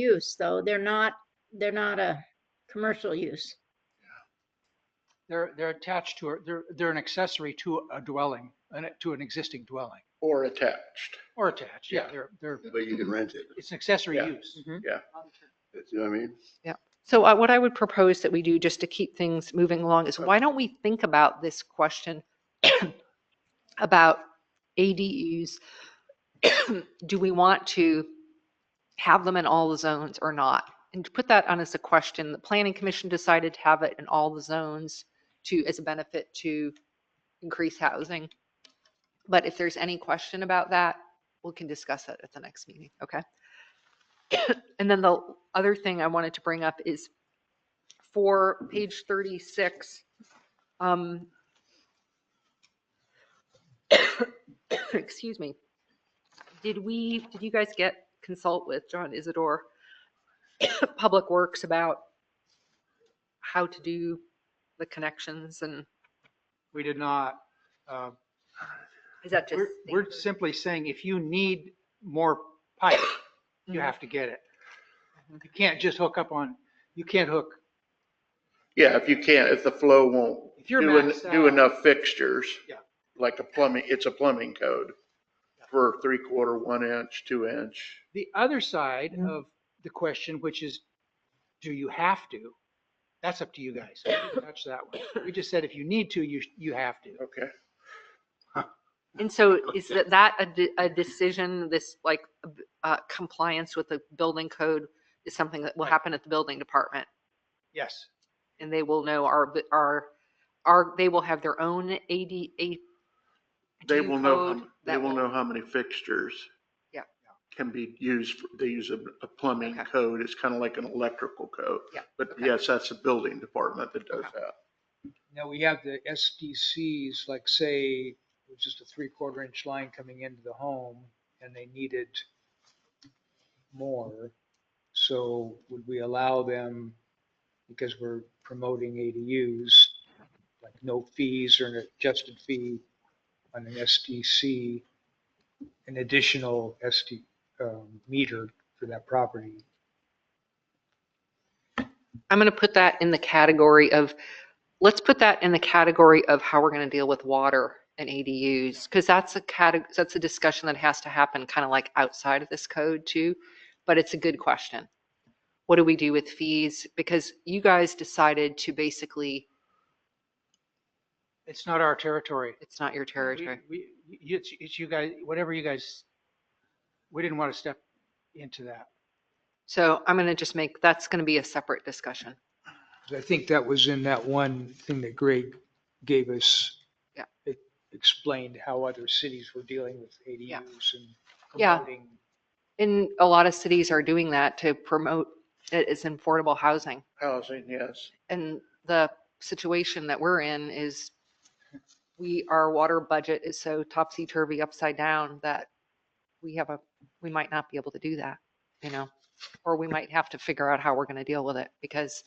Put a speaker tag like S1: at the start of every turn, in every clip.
S1: use, though. They're not, they're not a commercial use.
S2: They're, they're attached to, a- they're, they're an accessory to a dwelling, an- to an existing dwelling,
S3: Or attached,
S2: or attached, yeah,
S3: Yeah.
S2: they're, they're,
S3: but you can rent it.
S2: it's an accessory
S3: Yeah.
S2: use.
S3: You know what I mean?
S4: So uh, what I would propose that we do, just to keep things moving along, is why don't we think about this question about ADUs? Do we want to have them in all the zones or not? And to put that on as a question, the planning commission decided to have it in all the zones to, as a benefit to increase housing. But if there's any question about that, we can discuss that at the next meeting, okay? And then the other thing I wanted to bring up is for page 36. um, Excuse me. Did we, did you guys get consult with John Isidore, Public Works about how to do the connections and
S2: We did not, uh,
S4: is that just?
S2: we're, we're simply saying if you need more pipe, you
S4: Mhm.
S2: have to get it.
S4: Mm-hmm.
S2: You can't just hook up on, you can't hook,
S3: Yeah, if you can't, if the flow won't
S2: if you're
S3: do, en-
S2: maxed
S3: do
S2: out-
S3: enough fixtures.
S2: Yeah.
S3: Like a plumbing, it's a plumbing code for three quarter, one inch, two inch.
S2: The other side
S4: Yeah.
S2: of the question, which is, do you have to? That's up to you guys. We didn't Touch that one. We just said if you need to, you, you have to.
S3: Okay.
S4: And so is that, that a, de- a decision, this like uh, compliance with the building code is something that will
S2: Right.
S4: happen at the building department?
S2: Yes.
S4: And they will know our, bu- our, our, they will have their own AD, A-
S3: They
S4: Do
S3: will know,
S4: code
S3: how- they
S4: that
S3: will
S4: will-
S3: know how many fixtures.
S4: Yeah.
S3: Can be used, for- they use a, a plumbing
S4: Okay.
S3: code. It's kind of like an electrical code.
S4: Yeah,
S3: But
S4: okay.
S3: yes, that's the building department that does
S4: Okay.
S3: that.
S5: Now, we have the SDCs, like say, it was just a three-quarter inch line coming into the home and they needed more. So would we allow them, because we're promoting ADUs, like no fees or an adjusted fee on an SDC, an additional SD um, meter for that property?
S4: I'm going to put that in the category of, let's put that in the category of how we're going to deal with water and ADUs. Because that's a category, that's a discussion that has to happen kind of like outside of this code too. But it's a good question. What do we do with fees? Because you guys decided to basically,
S2: It's not our territory.
S4: it's not your
S2: We-
S4: territory.
S2: We, you- it's, it's you guys, whatever you guys, we didn't want to step into that.
S4: So I'm going to just make, that's going to be a separate discussion.
S5: 'Cause I think that was in that one thing that Greg gave us.
S4: Yeah.
S5: It explained how other cities were dealing with ADUs and
S4: Yeah.
S5: promoting.
S4: And a lot of cities are doing that to promote it as affordable housing.
S3: Housing, yes.
S4: And the situation that we're in is we, our water budget is so topsy-turvy upside down that we have a, we might not be able to do that, you know? Or we might have to figure out how we're going to deal with it because,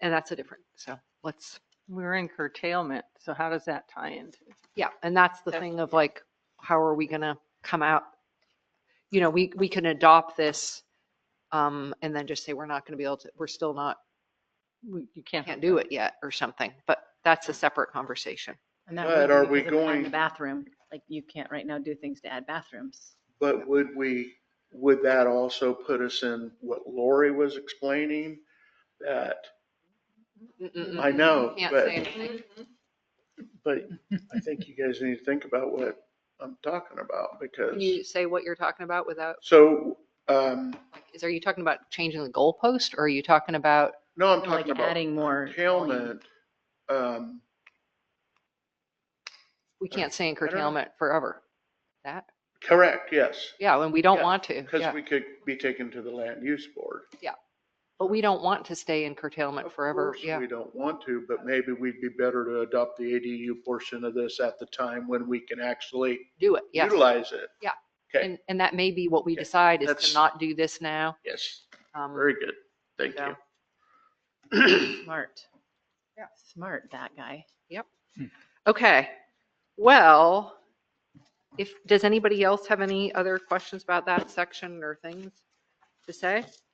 S4: and that's a different, so let's,
S6: We're in curtailment, so how does that tie into?
S4: yeah, and that's the
S6: That's-
S4: thing of like, how are we going to come out? You know, we, we can adopt this um, and then just say, we're not going to be able to, we're still not
S6: we- You can't.
S4: can't do it yet or something, but that's a separate conversation.
S6: And that
S3: But
S6: would
S3: are
S6: be
S3: we
S6: because of adding
S3: going-
S6: the
S1: The bathroom, like you can't right now do things to add bathrooms.
S3: But would we, would that also put us in what Lori was explaining? That, I know,
S4: Mm-hmm. Can't say
S3: but,
S4: anything.
S3: but I think you guys need to think about what I'm talking about
S4: Can
S3: because,
S4: you say what you're talking about without,
S3: so, um,
S4: like, is, are you talking about changing the goalpost or are you talking about?
S3: no, I'm
S1: Like
S3: talking about
S1: adding more. volume.
S3: curtailment. Um,
S4: We can't say in
S3: don't know.
S4: curtailment forever. That,
S3: correct, yes,
S4: yeah, and we don't
S3: Yeah,
S4: want to,
S3: because
S4: yeah.
S3: we could be taken to the land use board.
S4: But we don't want to stay in curtailment
S3: Of
S4: forever,
S3: course,
S4: yeah.
S3: We don't want to, but maybe we'd be better to adopt the ADU portion of this at the time when we can actually
S4: Do it, yes.
S3: utilize it.
S4: Yeah.
S3: Okay,
S4: And, and that may be what we
S3: Okay,
S4: decide is
S3: that's-
S4: to not do this now.
S3: yes,
S4: um,
S3: very good. Thank
S4: so.
S3: you.
S1: Smart.
S4: Yeah.
S1: Smart, that guy.
S4: Okay, well, if, does anybody else have any other questions about that section or things? to say?